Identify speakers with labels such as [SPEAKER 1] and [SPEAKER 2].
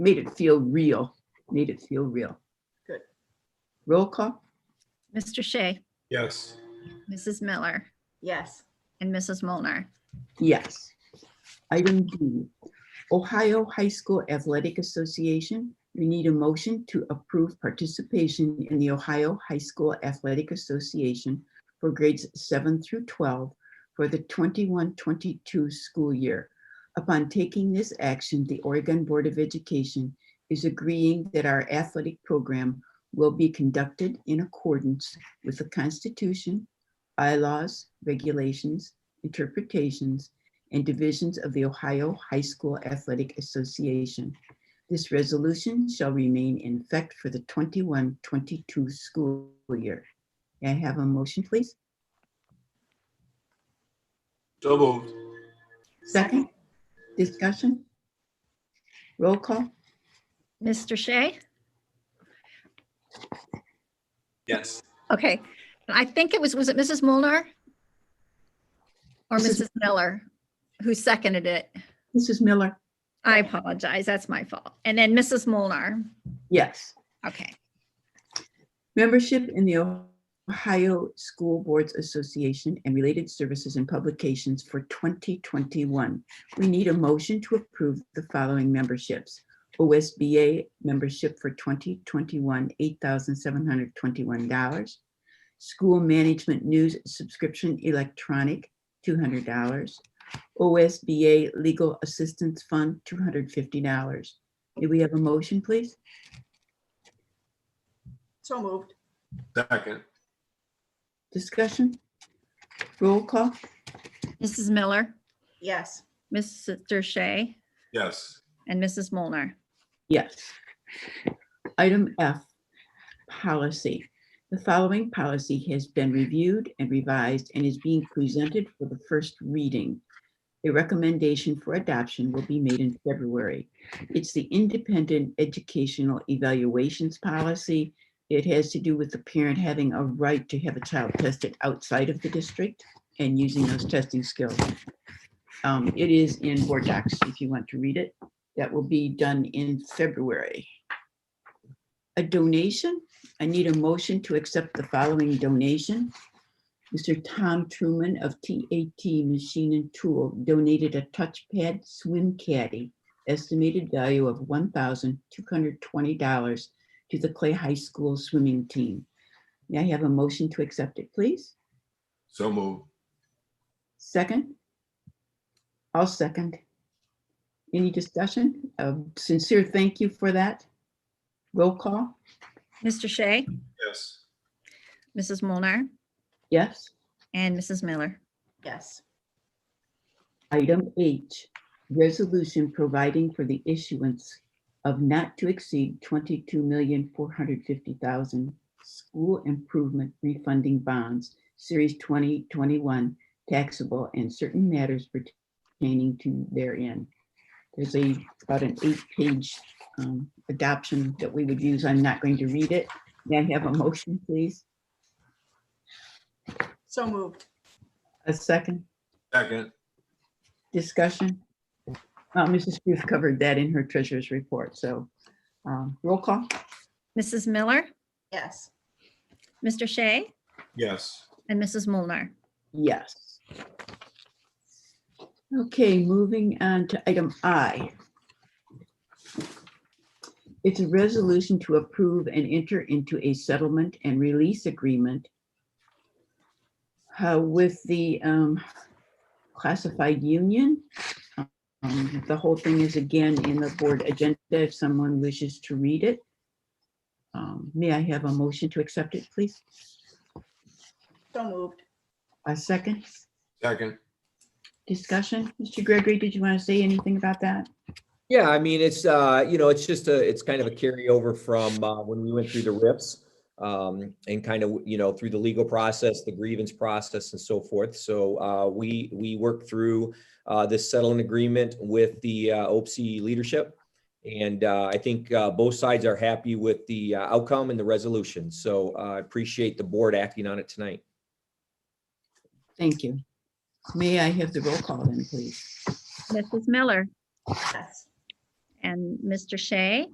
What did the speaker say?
[SPEAKER 1] made it feel real, made it feel real.
[SPEAKER 2] Good.
[SPEAKER 1] Roll call?
[SPEAKER 3] Mr. Shea,
[SPEAKER 4] Yes.
[SPEAKER 3] Mrs. Miller,
[SPEAKER 2] Yes.
[SPEAKER 3] and Mrs. Molnar.
[SPEAKER 1] Yes. Item D, Ohio High School Athletic Association. We need a motion to approve participation in the Ohio High School Athletic Association for grades seven through 12 for the 21-22 school year. Upon taking this action, the Oregon Board of Education is agreeing that our athletic program will be conducted in accordance with the Constitution, bylaws, regulations, interpretations, and divisions of the Ohio High School Athletic Association. This resolution shall remain in effect for the 21-22 school year. May I have a motion, please?
[SPEAKER 4] So moved.
[SPEAKER 1] Second, discussion? Roll call?
[SPEAKER 3] Mr. Shea?
[SPEAKER 4] Yes.
[SPEAKER 3] Okay, And I think it was, was it Mrs. Molnar? Or
[SPEAKER 1] Mrs.
[SPEAKER 3] Mrs. Miller, who seconded it?
[SPEAKER 1] Mrs. Miller?
[SPEAKER 3] I apologize, that's my fault. And then Mrs. Molnar.
[SPEAKER 1] Yes.
[SPEAKER 3] Okay,
[SPEAKER 1] Membership in the Ohio School Boards Association and related services and publications for 2021. We need a motion to approve the following memberships. OSBA membership for 2021, $8,721. School Management News Subscription Electronic, $200. OSBA Legal Assistance Fund, $250. Do we have a motion, please?
[SPEAKER 2] So moved.
[SPEAKER 4] Second.
[SPEAKER 1] Discussion? Roll call?
[SPEAKER 3] Mrs. Miller,
[SPEAKER 2] Yes.
[SPEAKER 3] Mr. Shea,
[SPEAKER 4] Yes.
[SPEAKER 3] and Mrs. Molnar.
[SPEAKER 1] Yes. Item F, policy. The following policy has been reviewed and revised and is being presented for the first reading. A recommendation for adoption will be made in February. It's the Independent Educational Evaluations Policy. It has to do with the parent having a right to have a child tested outside of the district and using those testing skills. Um, It is in Board Docs if you want to read it that will be done in February. A donation, I need a motion to accept the following donation. Mr. Tom Truman of TAT Machine and Tool donated a touchpad swim caddy, estimated value of $1,220 to the Clay High School swimming team. May I have a motion to accept it, please?
[SPEAKER 4] So moved.
[SPEAKER 1] Second? I'll second. Any discussion? A Sincere thank you for that. Roll call?
[SPEAKER 3] Mr. Shea,
[SPEAKER 4] Yes.
[SPEAKER 3] Mrs. Molnar,
[SPEAKER 1] Yes.
[SPEAKER 3] and Mrs. Miller.
[SPEAKER 2] Yes.
[SPEAKER 1] Item H, resolution providing for the issuance of not to exceed twenty-two million, four hundred fifty thousand school improvement refunding bonds, series twenty twenty-one taxable and certain matters pertaining to therein. There's a, about an eight-page um, adoption that we would use. I'm not going to read it. May I have a motion, please?
[SPEAKER 2] So moved.
[SPEAKER 1] A second?
[SPEAKER 4] Second.
[SPEAKER 1] Discussion? Uh, Mrs. Booth covered that in her treasurer's report, so um, roll call?
[SPEAKER 3] Mrs. Miller,
[SPEAKER 2] Yes.
[SPEAKER 3] Mr. Shea,
[SPEAKER 4] Yes.
[SPEAKER 3] and Mrs. Molnar.
[SPEAKER 1] Yes. Okay, moving on to item I. It's a resolution to approve and enter into a settlement and release agreement uh, with the um, classified union. Um, The whole thing is again in the board agenda if someone wishes to read it. Um, May I have a motion to accept it, please?
[SPEAKER 2] So moved.
[SPEAKER 1] A second?
[SPEAKER 4] Second.
[SPEAKER 1] discussion? Mr. Gregory, did you want to say anything about that?
[SPEAKER 5] Yeah, I mean, it's, uh, you know, it's just a, it's kind of a carryover from, uh, when we went through the RIPS. Um, and kind of, you know, through the legal process, the grievance process and so forth. So, uh, we, we worked through, uh, this settlement agreement with the, uh, OPC leadership. And, uh, I think, uh, both sides are happy with the uh, outcome and the resolution. So, uh, I appreciate the board acting on it tonight.
[SPEAKER 1] Thank you. May I have the roll call then, please?
[SPEAKER 3] Mrs. Miller,
[SPEAKER 2] Yes.
[SPEAKER 3] and Mr. Shea.